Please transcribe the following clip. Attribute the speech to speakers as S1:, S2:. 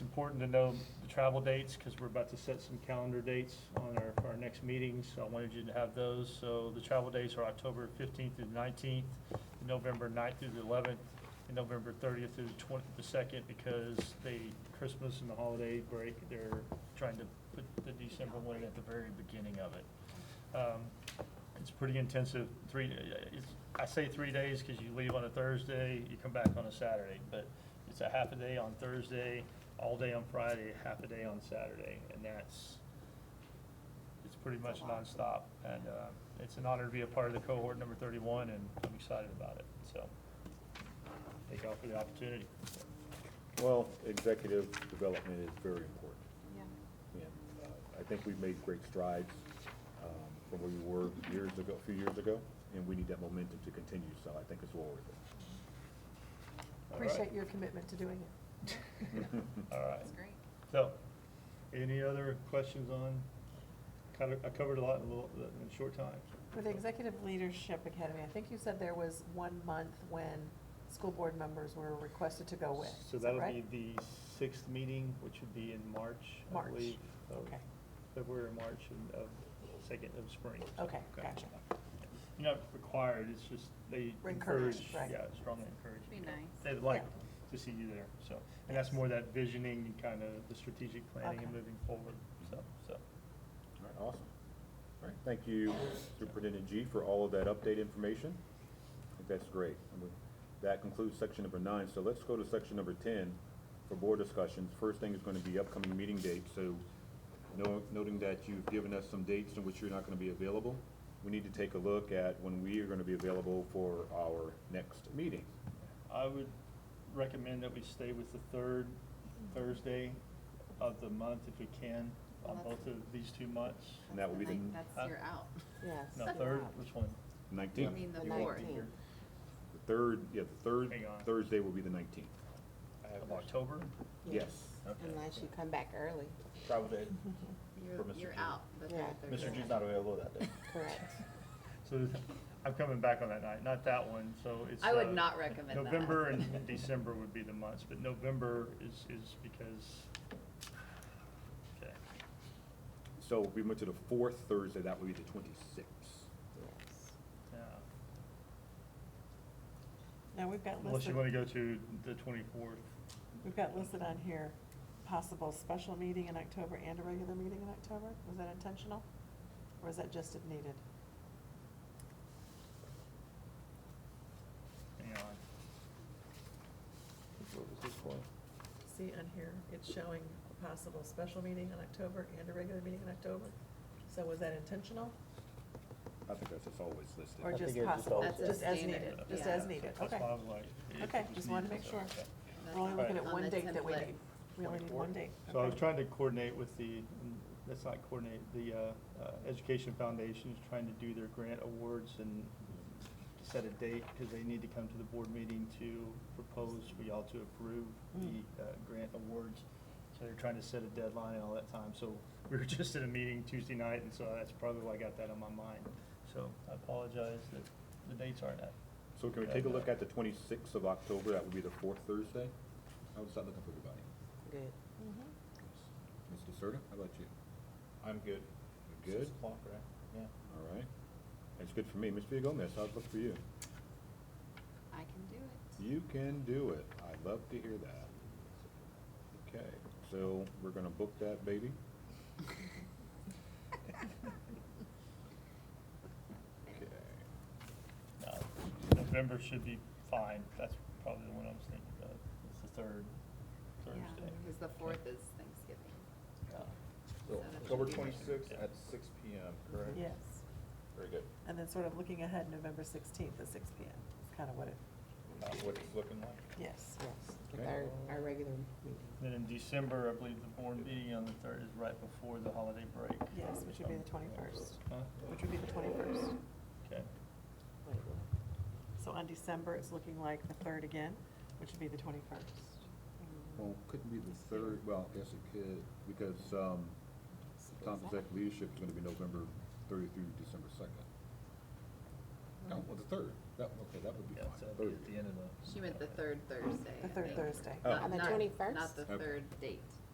S1: important to know the travel dates, because we're about to set some calendar dates on our, for our next meetings. So I wanted you to have those. So the travel dates are October fifteenth through the nineteenth, November 9th through the eleventh, and November thirtieth through the twenty, the second, because they, Christmas and the holiday break, they're trying to put the December one in at the very beginning of it. Um, It's pretty intensive, three, it's, I say three days because you leave on a Thursday, you come back on a Saturday, but it's a half a day on Thursday, all day on Friday, half a day on Saturday, and that's, it's pretty much nonstop. And, uh, it's an honor to be a part of the cohort number thirty-one, and I'm excited about it, so. Thank y'all for the opportunity.
S2: Well, executive development is very important,
S3: Yeah,
S2: and uh, I think we've made great strides um, from where we were years ago, a few years ago, and we need that momentum to continue, so I think it's well worth
S1: All right.
S4: Appreciate your commitment to doing it.
S2: it.
S1: All right.
S3: that's great.
S1: So, any other questions on, cover- I covered a lot in a little, in a short time.
S4: For the Executive Leadership Academy, I think you said there was one month when school board members were requested to go with,
S1: So
S4: oh, is that
S1: that'll be
S4: right?
S1: the sixth meeting, which would be in March, I
S4: March,
S1: believe. of
S4: okay.
S1: February, or March, and of second of spring. so-
S4: Okay, gotcha.
S1: You're not required, it's just they encourage,
S4: Encouraged, right.
S1: yeah, strongly encourage.
S3: Be
S1: you know,
S3: nice.
S1: They'd like
S4: Yeah.
S1: to see you there, so. And that's more that visioning and kind of the strategic planning and
S4: Okay.
S1: moving forward, so, so.
S2: All right, awesome. All right, thank you Superintendent G for all of that update information. I think that's great. And with- That concludes section number nine, so let's go to section number ten for board discussions. First thing is gonna be upcoming meeting dates, so no- noting that you've given us some dates in which you're not gonna be available, we need to take a look at when we are gonna be available for our next meeting.
S1: I would recommend that we stay with the third Thursday of the month if we can, on
S3: Well, that's-
S1: both of these two months.
S2: And that will be the
S3: Like, That's, you're out.
S4: Yes.
S1: No, third, which one?
S3: You
S2: nineteenth.
S3: mean the
S4: The
S3: fourth.
S4: nineteenth.
S2: The third, yeah, the third
S1: Hang on.
S2: Thursday will be the nineteenth.
S1: Of October?
S2: Yes.
S1: Okay.
S5: Unless you come back early,
S6: Travel day.
S3: You're,
S6: For Mr.
S3: you're
S6: Chu.
S3: out the third
S5: Yeah.
S3: Thursday.
S6: Mr. G's not available that day.
S5: correct?
S1: So th- I'm coming back on that night, not that one, so it's.
S3: I would
S1: uh,
S3: not recommend that.
S1: November and December would be the months, but November is, is because, okay.
S2: So if we went to the fourth Thursday, that would be the twenty-sixth.
S5: Yes.
S1: yeah.
S4: Now, we've got
S1: Unless you
S4: listed,
S1: want to go to the twenty-fourth.
S4: we've got listed on here, possible special meeting in October and a regular meeting in October. Was that intentional? Or is that just if needed?
S1: Hang on.
S4: See on here, it's showing a possible special meeting in October and a regular meeting in October. So was that intentional
S2: I think that's just always listed.
S4: or
S6: I
S4: just
S6: think it was just
S4: possible?
S3: always
S4: Just as
S3: listed.
S4: needed, just
S3: Yeah.
S4: as needed,
S1: That's
S4: okay.
S1: why I was like, it-
S4: Okay,
S1: it was
S4: just wanted to
S1: needed,
S4: make
S1: so,
S4: sure.
S1: okay.
S3: That's
S4: We're only looking
S3: on
S4: at one
S3: the
S4: date that we
S3: template.
S4: need. We only need one date.
S1: So I was
S4: Okay.
S1: trying to coordinate with the, that's not coordinate, the uh, uh, Education Foundation is trying to do their grant awards and set a date because they need to come to the board meeting to propose for y'all to approve
S4: Mm.
S1: the uh, grant awards. So they're trying to set a deadline and all that time. So we were just at a meeting Tuesday night and so that's probably why I got that on my mind. So I apologize that the dates aren't up.
S2: So can we take a look at the twenty-sixth of October, that would be the fourth Thursday? I would start looking for everybody.
S5: Good.
S4: Mhm.
S2: Mr. Serta, how about you?
S6: I'm good.
S2: You're good?
S6: Six o'clock, right? Yeah.
S2: All right. That's good for me. Ms. Villa Gomez, how's it look for you?
S3: I can do it.
S2: You can do it. I'd love to hear that. Okay, so we're gonna book that baby? Okay.
S1: No, November should be fine. That's probably the one I was thinking of. It's the third
S3: Yeah,
S1: Thursday.
S3: because the fourth is Thanksgiving. So
S6: So
S3: that should
S6: October
S3: be-
S6: twenty-sixth at six P M, correct?
S4: Yes.
S6: Very good.
S4: And then sort of looking ahead, November sixteenth at six P M. It's kind of what it,
S6: Not what it's looking like.
S4: yes.
S5: Yes,
S2: Okay.
S5: with our, our regular meeting.
S1: Then in December, I believe the board meeting on the third is right before the holiday break.
S4: Yes, which would be the twenty-first,
S1: Huh?
S4: which would be the twenty-first.
S1: Okay.
S5: Wait, what?
S4: So on December, it's looking like the third again, which would be the twenty-first.
S2: Well, couldn't be the third, well, I guess it could, because, um, Tom's exec leadership is gonna be November thirtieth through December second.
S4: Mm-hmm.
S2: No, well, the third, that, okay, that would be
S1: Yeah, so
S2: fine.
S6: Oh.
S1: it'd be
S2: Third.
S1: at the end of the.
S3: She meant the third Thursday.
S4: The
S3: I
S4: third
S3: think.
S4: Thursday.
S2: Oh.
S3: Not-
S2: On
S5: the
S3: not-
S5: 21st?
S3: Not the
S2: Okay.
S3: third date.